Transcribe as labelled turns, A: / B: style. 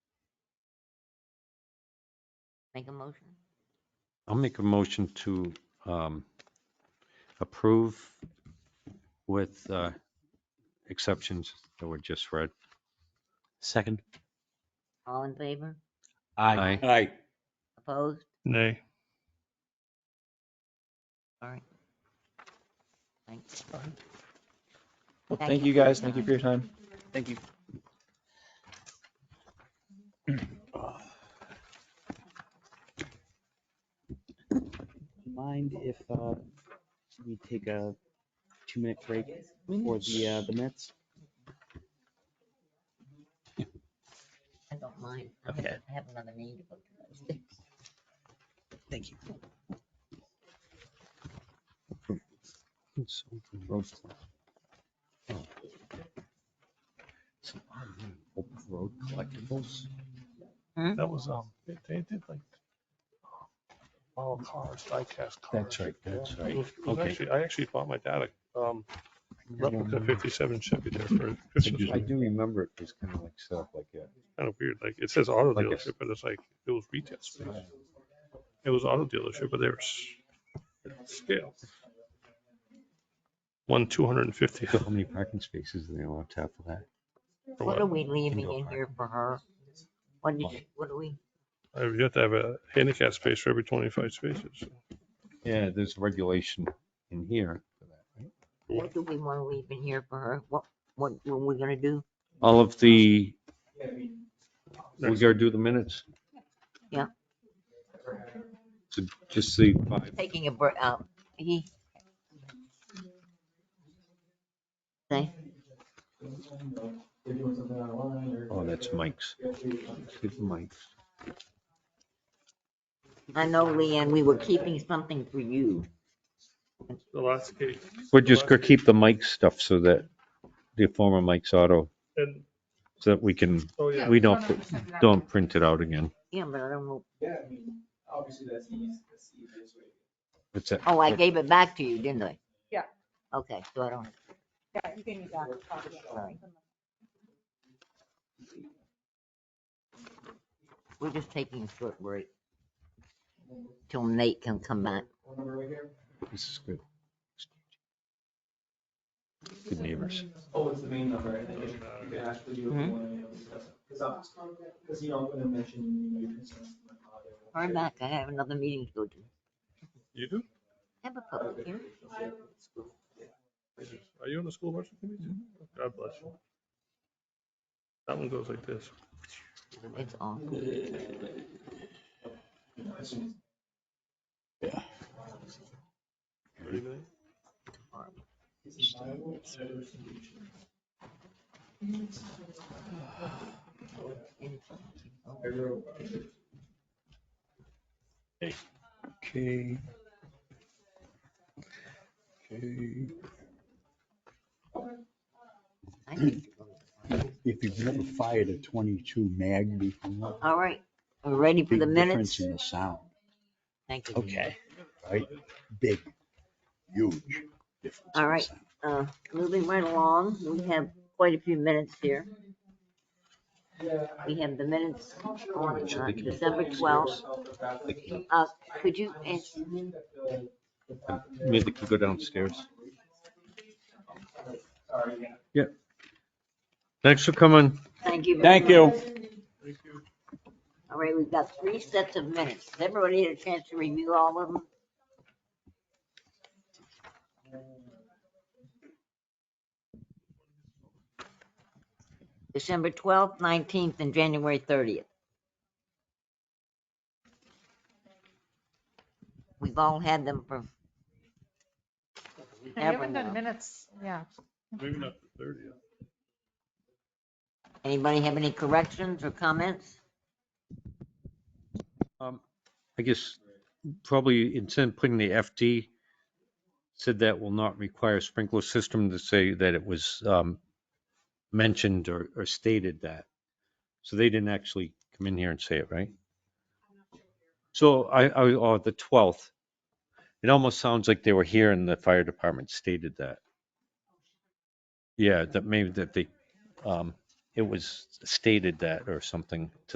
A: Make a motion?
B: I'll make a motion to um, approve with uh, exceptions that were just read.
C: Second.
A: All in favor?
C: Aye.
D: Aye.
A: Opposed?
E: Nay.
A: All right. Thanks.
F: Well,
A: Thank
F: thank
A: you
F: you
A: for your
F: guys. Thank you
A: time.
F: for your time.
D: Thank you.
C: Mind if uh, we take a two-minute break for the uh, the minutes?
A: I don't mind. I have-
C: Okay.
A: I have another meeting to go to.
C: Thank you.
B: Road collectibles.
E: That was, um, they- they did like model cars, diecast cars.
B: That's right, that's
E: Yeah.
B: right.
E: It was- it was
B: Okay.
E: actually- I actually bought my dad a, um, replica fifty-seven Chevy there for Christmas.
B: I do remember it was kind of like set up like that.
E: Kind of weird, like, it says auto
B: Like it's-
E: dealership, but it's like, it was retail space. It was auto dealership, but they were s- scale. One two hundred and fifty.
B: How many parking spaces are they allowed to have for that?
A: What are we leaving
B: Indoor
A: in
B: park.
A: here for her? What did, you- what are we,
E: You have to have a handicap space for every twenty-five spaces.
B: Yeah, there's regulation in here. for that, right?
A: what do we want to leave in here for her? What, what were we gonna do?
B: All of the, we gotta do the minutes.
A: Yeah.
B: So Just the five.
A: Taking a break, uh, he. Say,
B: Oh, that's Mike's. Give Mike's.
A: I know, Leanne, we were keeping something for you.
E: The last case.
B: We're just gonna keep the Mike stuff so that the former Mike's Auto,
E: And,
B: so that we can,
E: oh yeah,
B: we don't, don't print it out again.
A: Yeah, but I don't know.
F: Yeah, I mean, obviously that's easy, that's the easiest way.
B: What's that?
A: Oh, I gave it back to you, didn't I?
G: Yeah.
A: Okay, so I don't,
G: Yeah, you can use that.
A: Sorry. we're just taking a short break. Till Nate can come back.
F: Phone number right here?
B: This is good. Good neighbors.
F: Oh, it's the main number, I think, you can actually do it
A: Mhm.
F: one and discuss it. Cause I'm, cause you know, I'm gonna mention your concerns. to my colleague.
A: Hurry back, I have another meeting to go to.
E: you do?
A: Have a public hearing.
E: Are you on the school marching committee? God bless you. That one goes like this.
A: It's on.
D: Okay. Okay.
A: I need to go.
H: if you've never fired a twenty-two mag before.
A: All right, we're ready for
H: big
A: the minutes.
H: difference In the sound,
A: Thank you.
C: Okay.
H: right? Big, huge difference.
A: All
H: in the
A: right.
H: sound.
A: Uh, moving right along, we have quite a few minutes here. We have the minutes on uh, December twelfth. Uh, could you,
F: I'm
A: and
F: assuming that the, the fact that
B: Maybe they could go downstairs.
F: they're- sorry, yeah.
B: Thanks for coming.
A: thank you. very
H: Thank you.
A: much. All right, we've got three sets of minutes. Has everybody had a chance to review all of them? December twelfth, nineteenth, and January thirtieth. We've all had them for.
G: You haven't done minutes, yeah.
E: Maybe not the thirtieth.
A: Anybody have any corrections or comments?
B: Um, I guess probably instead of putting the FD, said that will not require sprinkler system to say that it was um, mentioned or or stated that. So they didn't actually come in here and say it, right? So I, I, or the 12th, it almost sounds like they were here and the fire department stated that. Yeah, that maybe that they, um, it was stated that or something to